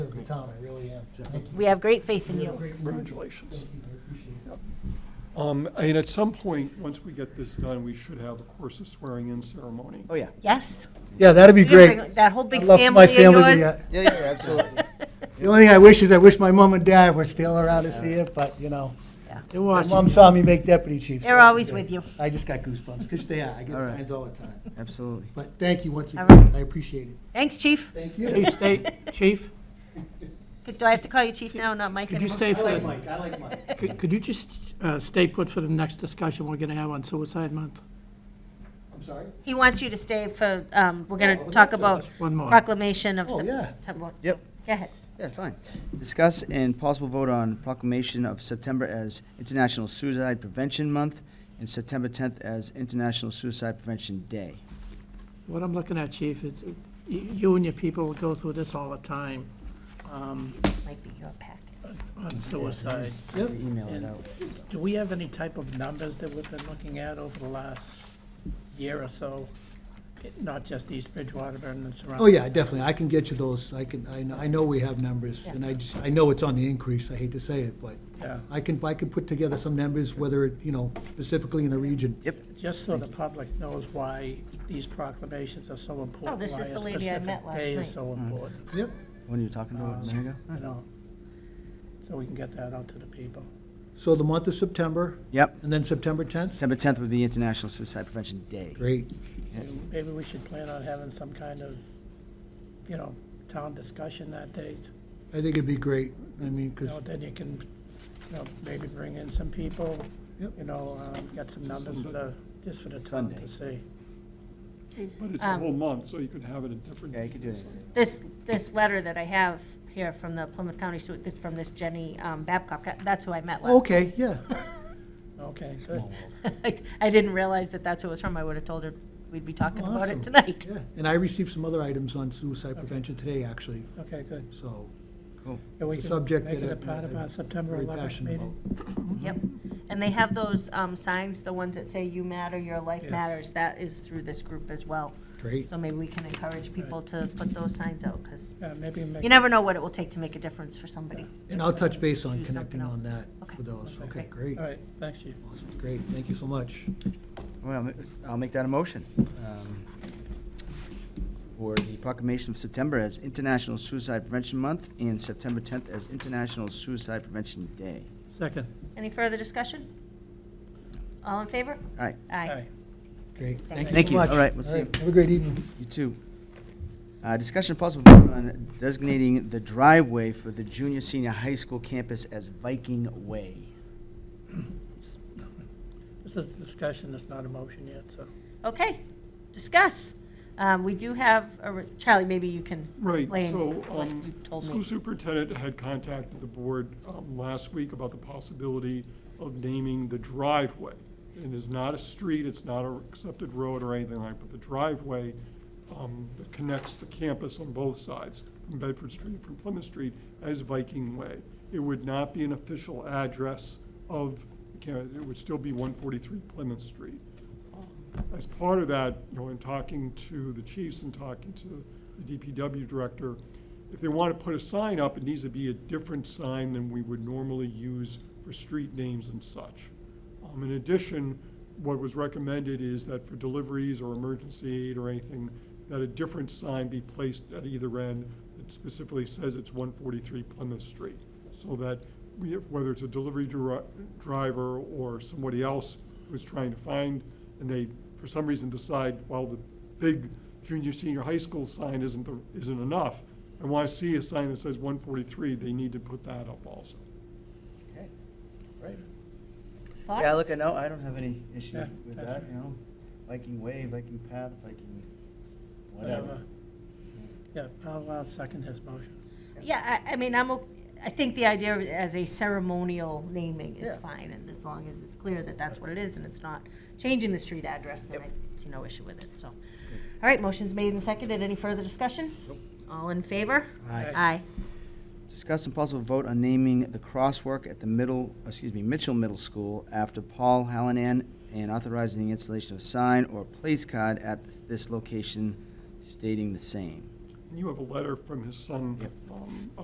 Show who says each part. Speaker 1: the town, I really am. Thank you.
Speaker 2: We have great faith in
Speaker 1: You
Speaker 2: you.
Speaker 1: have a great run.
Speaker 3: Congratulations.
Speaker 1: Thank you, I appreciate it.
Speaker 3: Um, And at some point, once we get this done, we should have, of course, a swearing-in ceremony.
Speaker 4: Oh, yeah.
Speaker 2: Yes?
Speaker 5: Yeah, that'd be
Speaker 2: You're gonna
Speaker 5: great.
Speaker 2: bring That whole big
Speaker 5: I'd love for
Speaker 2: family
Speaker 5: my
Speaker 2: of
Speaker 5: family to be
Speaker 2: yours?
Speaker 5: at-
Speaker 4: Yeah, yeah, absolutely.
Speaker 5: The only thing I wish is I wish my mom and dad were still around to see it, but, you know.
Speaker 2: Yeah.
Speaker 5: They're Mom saw me make deputy chief. so
Speaker 2: They're always with you.
Speaker 5: I just got goosebumps, because they are, I get
Speaker 4: All right.
Speaker 5: signs all the time.
Speaker 4: Absolutely.
Speaker 5: But thank you once
Speaker 2: All
Speaker 5: again, I appreciate it.
Speaker 2: Thanks, chief.
Speaker 5: Thank you.
Speaker 6: Chief, state, chief,
Speaker 2: Do I have to call you chief now, not Mike
Speaker 6: could you
Speaker 2: anymore?
Speaker 6: stay
Speaker 5: I
Speaker 6: for,
Speaker 5: like
Speaker 6: the-
Speaker 5: Mike, I like Mike.
Speaker 6: could could you just uh, stay put for the next discussion we're gonna have on Suicide Month?
Speaker 5: I'm sorry?
Speaker 2: He wants you to stay for, um, we're
Speaker 5: Oh, I
Speaker 2: gonna
Speaker 5: would
Speaker 2: talk
Speaker 5: love to.
Speaker 2: about
Speaker 6: One more.
Speaker 2: proclamation of
Speaker 5: Oh, yeah.
Speaker 2: September.
Speaker 4: Yep.
Speaker 2: Go ahead.
Speaker 4: Yeah, it's fine. Discuss and possible vote on proclamation of September as International Suicide Prevention Month and September 10th as International Suicide Prevention Day.
Speaker 6: What I'm looking at, chief, is uh, y- you and your people go through this all the time um,
Speaker 2: Might be your packet.
Speaker 6: on suicide.
Speaker 4: Yep. Email it out.
Speaker 6: Do we have any type of numbers that we've been looking at over the last year or so? It- Not just East Bridgewater, but in the surrounding.
Speaker 5: Oh, yeah, definitely, I can get you those, I can, I know, I know we have numbers, and I just, I know it's on the increase, I hate to say it, but
Speaker 6: Yeah.
Speaker 5: I can, I can put together some numbers, whether, it you know, specifically in the region.
Speaker 4: Yep.
Speaker 6: Just so the public knows why these proclamations are so important.
Speaker 2: Oh, this
Speaker 6: why
Speaker 2: is
Speaker 6: a
Speaker 2: the lady I
Speaker 6: specific
Speaker 2: met last
Speaker 6: Day
Speaker 2: night.
Speaker 6: is so important,
Speaker 5: Yep,
Speaker 4: What are you talking about? A minute ago?
Speaker 6: you know, so we can get that out to the people.
Speaker 5: so the month of September,
Speaker 4: Yep.
Speaker 5: and then September 10th?
Speaker 4: September 10th would be International Suicide Prevention Day.
Speaker 5: Great.
Speaker 6: Maybe we should plan on having some kind of, you know, town discussion that day.
Speaker 5: I think it'd be great, I mean,
Speaker 6: You
Speaker 5: because,
Speaker 6: know, then you can, you know, maybe bring in some people,
Speaker 5: Yep.
Speaker 6: you know, um, get some numbers for the, just for the town
Speaker 4: Sunday.
Speaker 6: to see.
Speaker 3: But it's a whole month, so you could have it in different.
Speaker 4: Yeah, you could do it.
Speaker 2: This, this letter that I have here from the Plymouth County, Su- this- from this Jenny um, Babcock, that- that's who I met last.
Speaker 5: Oh, okay, yeah,
Speaker 6: Okay, good.
Speaker 2: I didn't realize that that's who it was from. I would have told her we'd be talking about
Speaker 5: Awesome.
Speaker 2: it tonight.
Speaker 5: yeah. And I received some other items on suicide prevention today, actually,
Speaker 6: Okay, good.
Speaker 5: so
Speaker 6: And we
Speaker 5: It's a
Speaker 6: can
Speaker 5: subject
Speaker 6: Make
Speaker 5: that
Speaker 6: it a
Speaker 5: I'm-
Speaker 6: part of our
Speaker 5: I'm
Speaker 6: September
Speaker 5: very
Speaker 6: 11th
Speaker 5: passionate about.
Speaker 6: meeting.
Speaker 2: Yep. And they have those um, signs, the ones that say you matter, your life
Speaker 6: Yes.
Speaker 2: matters. That is through this group as well.
Speaker 5: Great.
Speaker 2: So maybe we can encourage people to put those signs out because
Speaker 6: Yeah, maybe make.
Speaker 2: you never know what it will take to make a difference for somebody.
Speaker 5: And I'll touch base on
Speaker 2: Do something
Speaker 5: connecting
Speaker 2: else.
Speaker 5: on that
Speaker 2: Okay.
Speaker 5: for those, okay,
Speaker 2: Okay.
Speaker 5: great,
Speaker 6: All right, thanks, Chief.
Speaker 5: awesome, great, thank you so much.
Speaker 4: Well, I'll make that a motion. um, For the proclamation of September as International Suicide Prevention Month and September 10th as International Suicide Prevention Day.
Speaker 6: Second.
Speaker 2: Any further discussion? All in favor?
Speaker 4: All right.
Speaker 2: Aye.
Speaker 6: Aye.
Speaker 5: Great, thank you so much.
Speaker 4: Thank you. All right, we'll see you.
Speaker 5: Have a great evening.
Speaker 4: You too. Uh, Discussion possible vote on designating the driveway for the junior senior high school campus as Viking Way.
Speaker 6: This is a discussion, it's not a motion yet, so.
Speaker 2: Okay, discuss. Um, We do have, a re- Charlie, maybe you can
Speaker 3: Right,
Speaker 2: explain
Speaker 3: so,
Speaker 2: what you
Speaker 3: um,
Speaker 2: told
Speaker 3: school
Speaker 2: me.
Speaker 3: superintendent had contacted the board, um, last week about the possibility of naming the driveway. It is not a street, it's not a accepted road or anything like, but the driveway, um, that connects the campus on both sides, from Bedford Street and from Plymouth Street, as Viking Way. It would not be an official address of, the camp- it would still be one forty-three Plymouth Street. As part of that, you know, in talking to the chiefs and talking to the DPW director, if they want to put a sign up, it needs to be a different sign than we would normally use for street names and such. Um, In addition, what was recommended is that for deliveries or emergency aid or anything, that a different sign be placed at either end that specifically says it's 143 Plymouth Street, so that we, have- whether it's a delivery dri- driver or somebody else who's trying to find, and they, for some reason, decide, well, the big junior, senior high school sign isn't, the- isn't enough, and want to see a sign that says 143, they need to put that up also.
Speaker 4: Right. Yeah,
Speaker 2: Thoughts?
Speaker 4: look, I know, I don't have any issue
Speaker 6: Yeah,
Speaker 4: with
Speaker 6: that's
Speaker 4: that,
Speaker 6: fine.
Speaker 4: you know, Viking Way, Viking Path, Viking,
Speaker 6: Whatever.
Speaker 4: whatever.
Speaker 6: Yeah, I'll, I'll second his motion.
Speaker 2: Yeah, I, I mean, I'm, o- I think the idea of it as a ceremonial naming is
Speaker 4: Yeah.
Speaker 2: fine, and as long as it's clear that that's what it is, and it's not changing the street address, then I see no issue with it, so. All right, motion's made and seconded. Any further discussion? All in favor?
Speaker 4: Aye.
Speaker 2: Aye.
Speaker 4: Discuss and possible vote on naming the crosswalk at the middle, excuse me, Mitchell Middle School after Paul Hallinan and authorizing the installation of a sign or place card at this location stating the same.
Speaker 3: And you have a letter from his son um,